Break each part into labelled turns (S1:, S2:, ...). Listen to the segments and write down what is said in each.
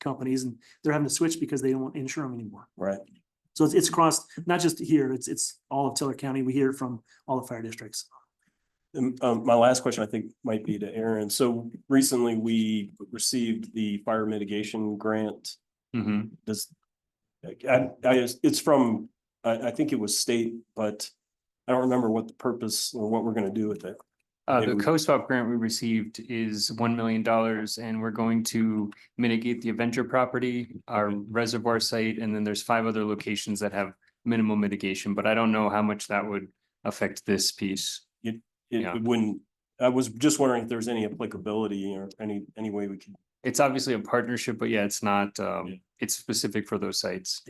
S1: companies and they're having to switch because they don't want to insure them anymore.
S2: Right.
S1: So it's, it's across, not just here, it's, it's all of Taylor County. We hear it from all the fire districts.
S2: Um, um, my last question, I think, might be to Aaron. So recently we received the fire mitigation grant.
S3: Mm-hmm.
S2: Does, I, I, it's from, I, I think it was state, but I don't remember what the purpose or what we're gonna do with it.
S3: Uh, the
S2: Maybe we-
S3: co-swap grant we received is one million dollars and we're going to mitigate the Avenger property, our
S2: Mm-hmm.
S3: reservoir site, and then there's five other locations that have minimal mitigation, but I don't know how much that would affect this piece. Yeah.
S2: It wouldn't, I was just wondering if there's any applicability or any, any way we could.
S3: It's obviously a partnership, but yeah, it's not,
S2: Yeah.
S3: um, it's specific for those sites.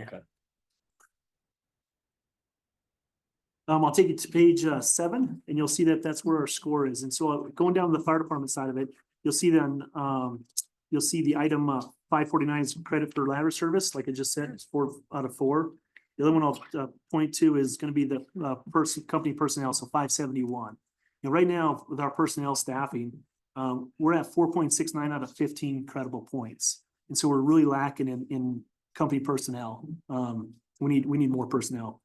S1: Um, I'll take you to page uh, seven and you'll see that that's where our score is. And so uh, going down to the fire department side of it, you'll see then, um, you'll see the item uh, five forty-nine is credit for ladder service, like I just said, it's four out of four. The other one I'll uh, point to is gonna be the uh, person, company personnel, so five seventy-one. And right now, with our personnel staffing, um, we're at four point six nine out of fifteen credible points. And so we're really lacking in, in company personnel. Um, we need, we need more personnel.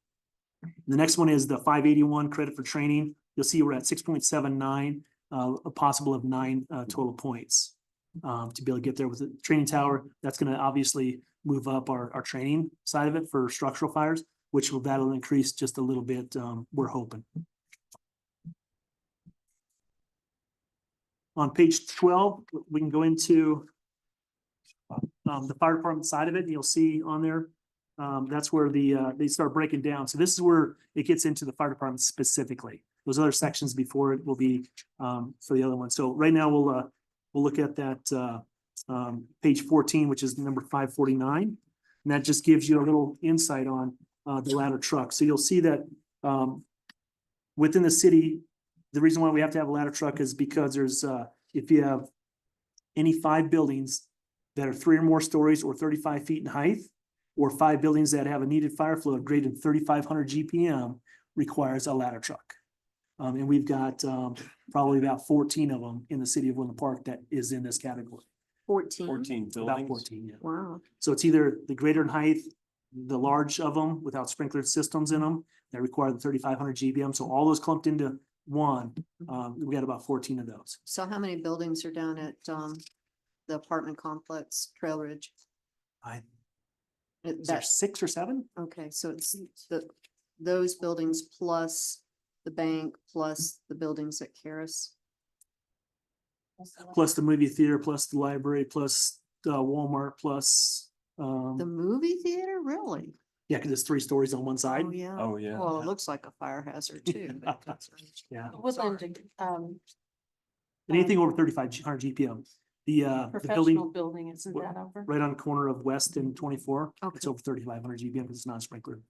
S1: The next one is the five eighty-one credit for training. You'll see we're at six point seven nine, uh, a possible of nine, uh, total points. Um, to be able to get there with the training tower, that's gonna obviously move up our, our training side of it for structural fires, which will, that'll increase just a little bit, um, we're hoping. On page twelve, we can go into um, the fire department side of it, and you'll see on there, um, that's where the, uh, they start breaking down. So this is where it gets into the fire department specifically. Those other sections before it will be, um, for the other one. So right now we'll, uh, we'll look at that, uh, um, page fourteen, which is number five forty-nine. And that just gives you a little insight on, uh, the ladder truck. So you'll see that, um, within the city, the reason why we have to have a ladder truck is because there's, uh, if you have any five buildings that are three or more stories or thirty-five feet in height, or five buildings that have a needed fire flow of greater than thirty-five hundred GPM requires a ladder truck. Um, and we've got, um, probably about fourteen of them in the city of Woodland Park that is in this category,
S4: Fourteen.
S2: Fourteen
S1: Mm-hmm. about
S2: buildings.
S1: fourteen, yeah.
S4: Wow.
S1: So it's either the greater in height, the large of them without sprinkler systems in them, that require the thirty-five hundred GBM, so all those clumped into one. Um, we got about fourteen of those.
S4: So how many buildings are down at, um, the apartment complex, Trail Ridge?
S1: I,
S4: Uh,
S1: is there
S4: That's,
S1: six or seven?
S4: okay, so it's the, those buildings plus the bank, plus the buildings at Caris.
S1: Plus the movie theater, plus the library, plus uh, Walmart, plus,
S4: The
S1: um,
S4: movie theater, really?
S1: yeah, cause it's three stories on one side.
S4: Oh, yeah.
S2: Oh, yeah.
S4: Well, it looks like a fire hazard too. but that's-
S1: Yeah.
S5: Woodland, um,
S1: And Anything over thirty-five G- hundred GPM. The, uh, the
S5: professional
S1: building
S5: building, isn't
S1: what-
S5: that over?
S1: right on the corner of West and twenty-four, it's
S4: Okay.
S1: over thirty-five hundred GPM because it's not sprinkler.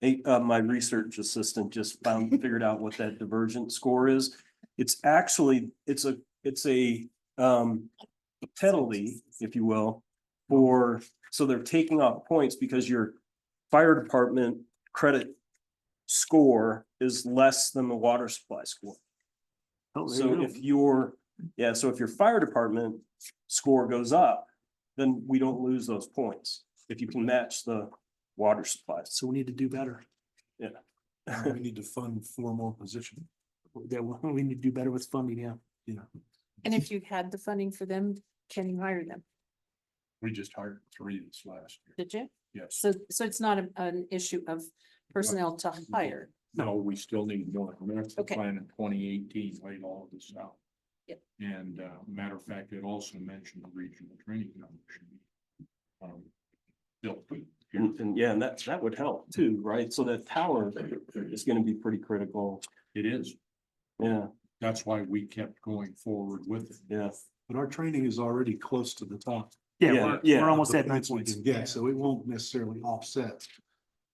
S2: Hey, uh, my research assistant just found, figured out what that divergent score is. It's actually, it's a, it's a, um, penalty, if you will, for, so they're taking off points because your fire department credit score is less than the water supply score.
S1: Oh, there you
S2: So
S1: go.
S2: if your, yeah, so if your fire department score goes up, then we don't lose those points. If you can match the water supplies.
S1: So we need to do better.
S6: We need to fund four more positions.
S1: That we we need to do better with funding, yeah.
S5: And if you had the funding for them, can you hire them?
S6: We just hired three this last year.
S5: Did you?
S6: Yes.
S5: So, so it's not a- an issue of personnel to hire.
S6: No, we still need more. Master
S5: Okay.
S6: plan in twenty eighteen laid all of this out.
S5: Yep.
S6: And uh, matter of fact, it also mentioned the regional training commission. um, Built.
S2: And, and yeah, and that, that would help too, right? So that tower is gonna be pretty critical.
S6: It is.
S2: Yeah,
S6: That's why we kept going forward with it.
S2: yeah.
S7: But our training is already close to the top.
S1: Yeah,
S2: Yeah,
S1: we're,
S2: yeah,
S1: we're almost
S7: the
S1: at nine
S7: points we
S1: points.
S7: can Get, so it won't necessarily offset.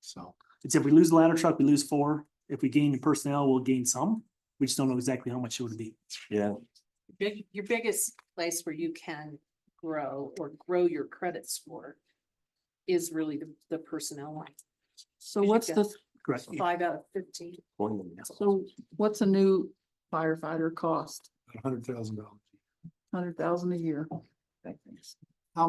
S7: So.
S1: It's if we lose the ladder truck, we lose four. If we gain in personnel, we'll gain some. We just don't know exactly how much it would be.
S5: Big, your biggest place where you can grow or grow your credit score is really the, the personnel line.
S8: So
S5: Did you
S8: what's
S5: get-
S8: the,
S1: Correct.
S5: Five out of fifteen.
S8: so what's a new firefighter cost?
S7: Hundred thousand dollars.
S8: Hundred thousand a year?